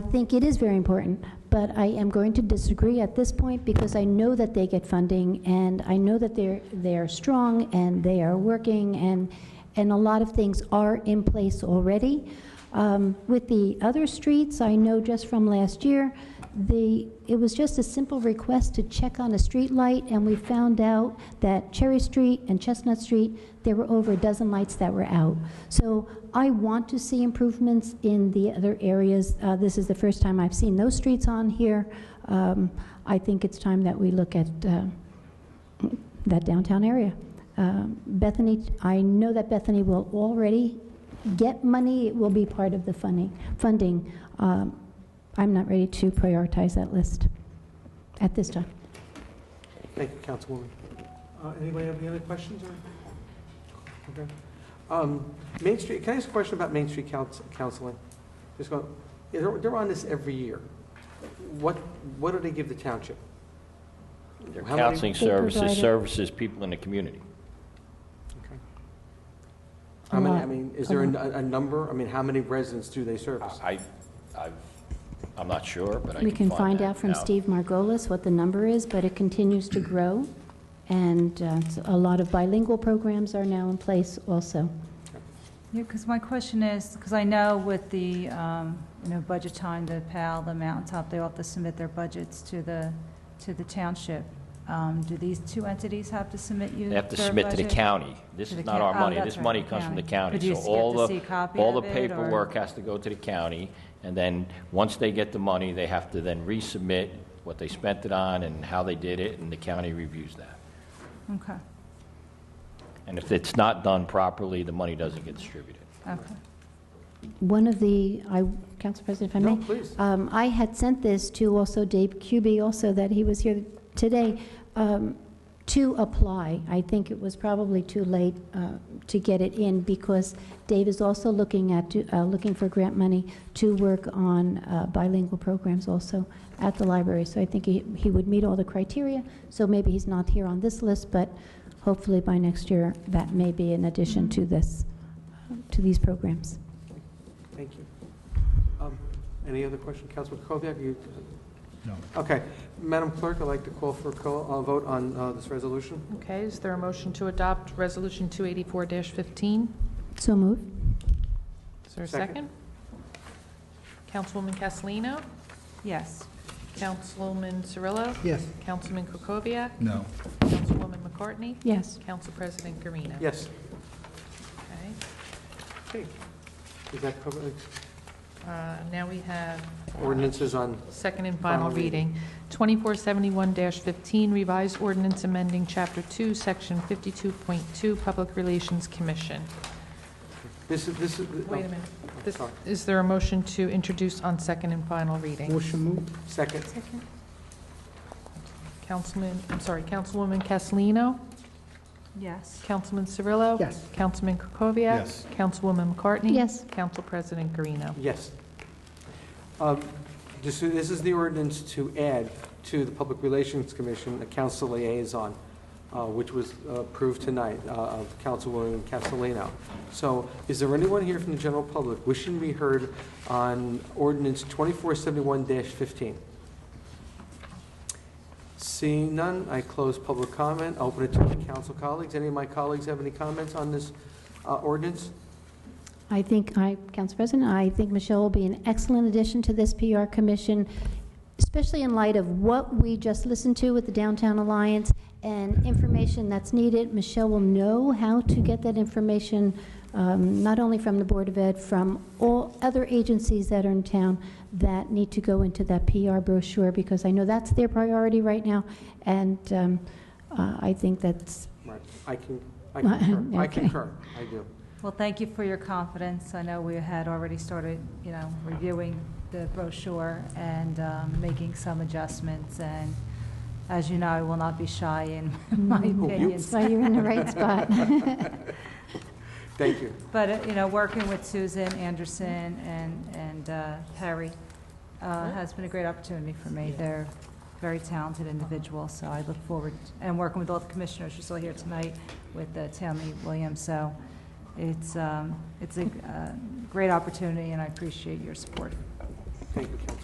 think it is very important, but I am going to disagree at this point because I know that they get funding, and I know that they're, they are strong, and they are working, and, and a lot of things are in place already. Um, With the other streets, I know just from last year, the, it was just a simple request to check on a street light, and we found out that Cherry Street and Chestnut Street, there were over a dozen lights that were out. So I want to see improvements in the other areas. Uh, This is the first time I've seen those streets on here. Um, I think it's time that we look at uh, that downtown area. Um, Bethany, I know that Bethany will already get money, it will be part of the funding, funding. Um, I'm not ready to prioritize that list at this time. Thank you, Councilwoman. Uh, Anybody have any other questions? or- Okay. Um, Main Street, can I ask a question about Main Street couns- counseling? Just go, yeah, they're they're on this every year. What, what do they give the township? Their How many- counseling They services, provide it. services people in the community. Okay. A How many, lot. I mean, is A there a n- lot. a a number? I mean, how many residents do they service? I, I've, I'm not sure, but I We can find that out from out. Steve Margolis what the number is, but it continues to grow, and uh, it's- a lot of bilingual programs are now in place also. Yeah, because my question is, because I know with the, um, you know, budget time, the PAL, the Mountaintop, they all have to submit their budgets to the, to the township. Um, Do these two entities have to submit you They have to their submit to the budget? county. This To is the not coun- our oh, money. that's This right, money comes from the county. But do you So s- get all to the see a copy All the of it, or- paperwork has to go to the county, and then, once they get the money, they have to then resubmit what they spent it on and how they did it, and the county reviews that. Okay, And if it's not done properly, the money doesn't get distributed. okay. One of the, I, Council President, if I may? No, please. Um, I had sent this to also Dave Cubey, also that he was here today, um, to apply. I think it was probably too late uh, to get it in because Dave is also looking at, uh, looking for grant money to work on uh, bilingual programs also at the library. So I think he he would meet all the criteria, so maybe he's not here on this list, but hopefully by next year, that may be in addition to this, to these programs. Thank you. Um, Any other question? Councilman Kukoviac, you? No. Okay. Madam Clerk, I'd like to call for a co- a vote on uh, this resolution. Okay, is there a motion to adopt Resolution 284-15? So moved. Is there a Second. second? Councilwoman Castellino? Yes. Councilman Cirillo? Yes. Councilman Kukoviac? No. Councilwoman McCartney? Yes. Council President Garina. Yes. Okay. Okay. Is that covered? Uh, Now we have uh, Ordinances on, second and final Final reading. reading. 2471-15, revised ordinance amending Chapter 2, Section 52.2, Public Relations Commission. this is, this is. oh, Wait a minute. This- Sorry. Is there a motion to introduce on second and final reading? Motion moved. Second. Councilman, I'm sorry, Councilwoman Castellino? Yes. Councilman Cirillo? Yes. Councilman Krokoviac? Yes. Councilwoman McCartney? Yes. Council President Garino. Yes. Um, This this is the ordinance to add to the Public Relations Commission a council liaison, uh, which was approved tonight uh, of Councilwoman Castellino. So is there anyone here from the general public wishing to be heard on ordinance 2471-15? Seeing none, I close public comment, open it to my council colleagues. Any of my colleagues have any comments on this uh, ordinance? I think, I, Council President, I think Michelle will be an excellent addition to this PR commission, especially in light of what we just listened to with the Downtown Alliance and information that's needed. Michelle will know how to get that information, um, not only from the Board of Ed, from all other agencies that are in town that need to go into that PR brochure, because I know that's their priority right now, and um, uh, I think that's, Right, I can, I concur, I Okay. concur, I do. Well, thank you for your confidence. I know we had already started, you know, reviewing the brochure and um, making some adjustments, and as you know, I will not be shy in my Mm. Oh, you- opinions. so you're in the right spot. Thank you. But, uh, you know, working with Susan Anderson and, and uh, Perry uh, has been a great opportunity for me. They're very talented individuals, so I look forward, and working with all the commissioners, you're still here tonight with uh, Tammy Williams, so it's, um, it's a uh, great opportunity, and I appreciate your support. Thank you, Councilman.